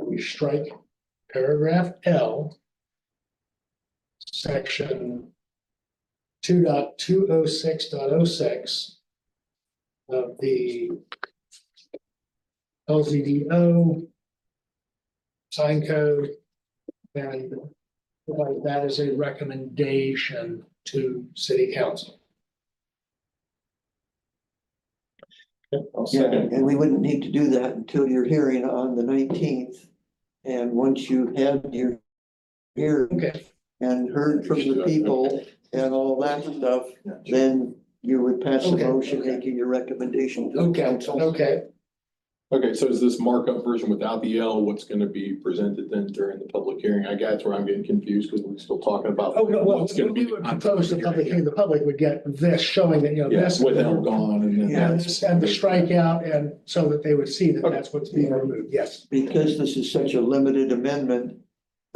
we strike paragraph L. Section two dot two oh six dot oh six. Of the. LZDO. Sign code. And provide that as a recommendation to city council. I'll Yeah, second. and we wouldn't need to do that until your hearing on the nineteenth. And once you've had your hearing Okay, and heard from the people and all that stuff, then you would pass a Okay, motion okay. making your recommendation. to the okay, council. okay, Okay, so is this markup version without the L, what's gonna be presented then during the public hearing? I guess where I'm getting confused because we're still talking about. oh, no, well, what's gonna when be we would on propose the public hearing, the public would get this showing that, you know, Yes, this. with L gone and then. Yeah, And that's- this- and the strikeout, and so that they would see that Okay. that's what's being removed, yes. Because this is such a limited amendment,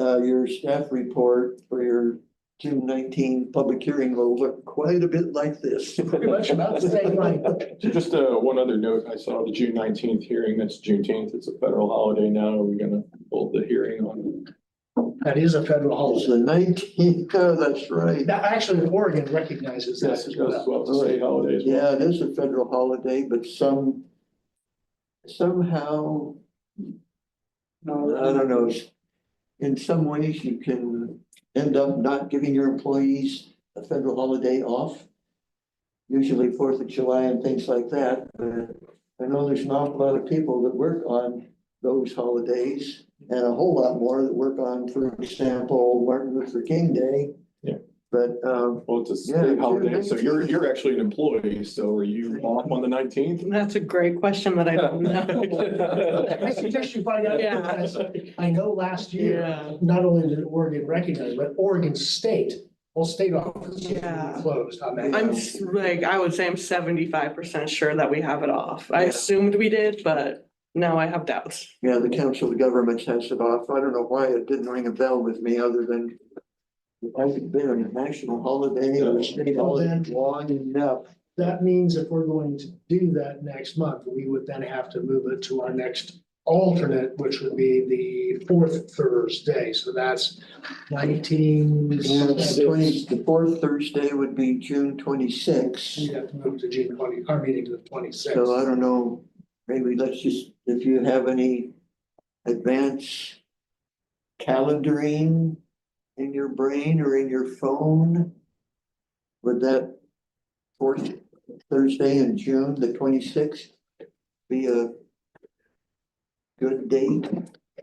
uh, your staff report for your June nineteen public hearing will look quite a bit like this. Pretty much about the same language. Just uh, one other note, I saw the June nineteenth hearing, that's Juneteenth, it's a federal holiday now, are we gonna hold the hearing on? That is a federal It's holiday. the nineteenth, oh, that's right. That actually, Oregon recognizes that Yes, as it goes well. well to state holidays. Yeah, it is a federal holiday, but some, somehow, I don't know. In some ways, you can end up not giving your employees a federal holiday off. Usually Fourth of July and things like that, but I know there's an awful lot of people that work on those holidays. And a whole lot more that work on, for example, Martin Luther King Day. Yeah. But, um, Well, it's a Yeah, state June holiday, so you're, 19th. you're actually an employee, so are you off on the nineteenth? That's a great question that I don't I know. suggest you find out, Yeah. because I know last year, not only did Oregon recognize, but Oregon State, whole state office Yeah. closed on that. I'm s- like, I would say I'm seventy-five percent sure that we have it off. I assumed we did, but now I have doubts. Yeah, the Council of Governments has it off. I don't know why it didn't ring a bell with me other than it hasn't been a national holiday or a state Well, then- holiday long enough. That means if we're going to do that next month, we would then have to move it to our next alternate, which would be the fourth Thursday. So that's nineteen. And the twenty, the fourth Thursday would be June twenty-sixth. We'd have to move to June twenty, our meeting to the twenty-sixth. uh, So I don't know, maybe let's just, if you have any advance calendaring in your brain or in your phone, would that fourth Thursday in June, the twenty-sixth, be a good date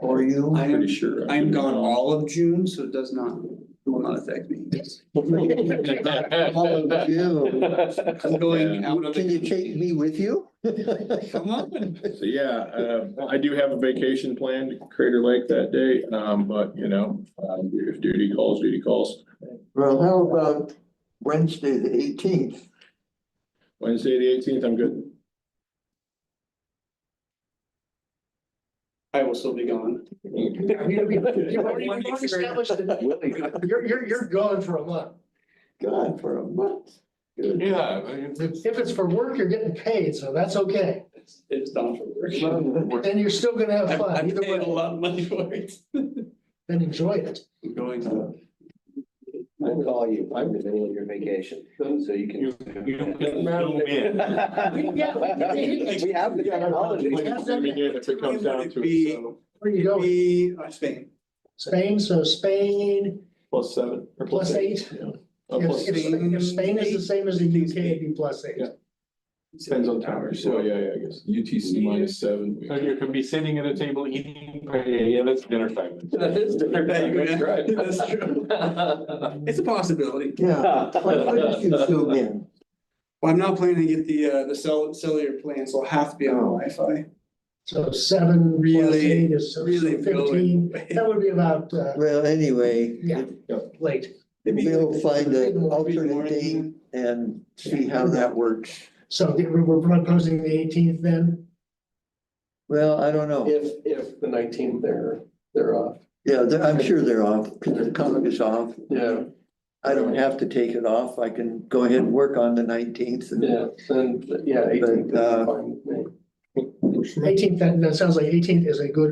for you? I am, Pretty sure. I am gone all of June, so it does not, it will not affect me. All of June. I'm going out of. Can you take me with you? Come on. So, yeah, uh, I do have a vacation planned to Crater Lake that day, um, but you know, um, if duty calls, duty calls. Well, how about Wednesday, the eighteenth? Wednesday, the eighteenth, I'm good. I will still be gone. You've already you've already established that you're, you're, you're gone for a month. God, for a month. Yeah, I mean, it's- If it's for work, you're getting paid, so that's okay. It's- It's done for work. Well, Then you're still gonna have I'm, fun. I'm Either paying a way, lot of money for it. then enjoy it. I'm going. I would call you, I'm in the middle of your vacation, so you can. You- you don't get zoom in. We have the technology. Zoom in If it comes down to Be- it, so Where you going? Be, uh, Spain. Spain, so Spain, plus seven or plus Plus eight. yeah. Uh, If, plus- if Spain- if Spain is the same as the UK, it'd be plus eight. Yeah. Depends on time, so Oh, yeah, yeah, I guess UTC minus seven. So you could be sitting at a table eating paella, that's dinner time. That is different. That's right. That's true. It's a possibility. Yeah, why why don't you zoom in? Well, I'm not planning to get the, uh, the cell, cellular plan, so I'll have to be on Wi-Fi. So seven plus Really, eight is so- so really fifteen. That would be about, uh, Well, anyway, yeah, late. Maybe- we'll find an Maybe alternate date morning. and see how that works. So the- we're proposing the eighteenth then? Well, I don't know. If, if the nineteenth they're, they're off, Yeah, they're- I'm sure they're off, because the comic is off. yeah, I don't have to take it off. I can go ahead and work on the nineteenth. uh, yeah, then, yeah, eighteenth is fine. with me. Eighteenth, that, that sounds like eighteenth is a good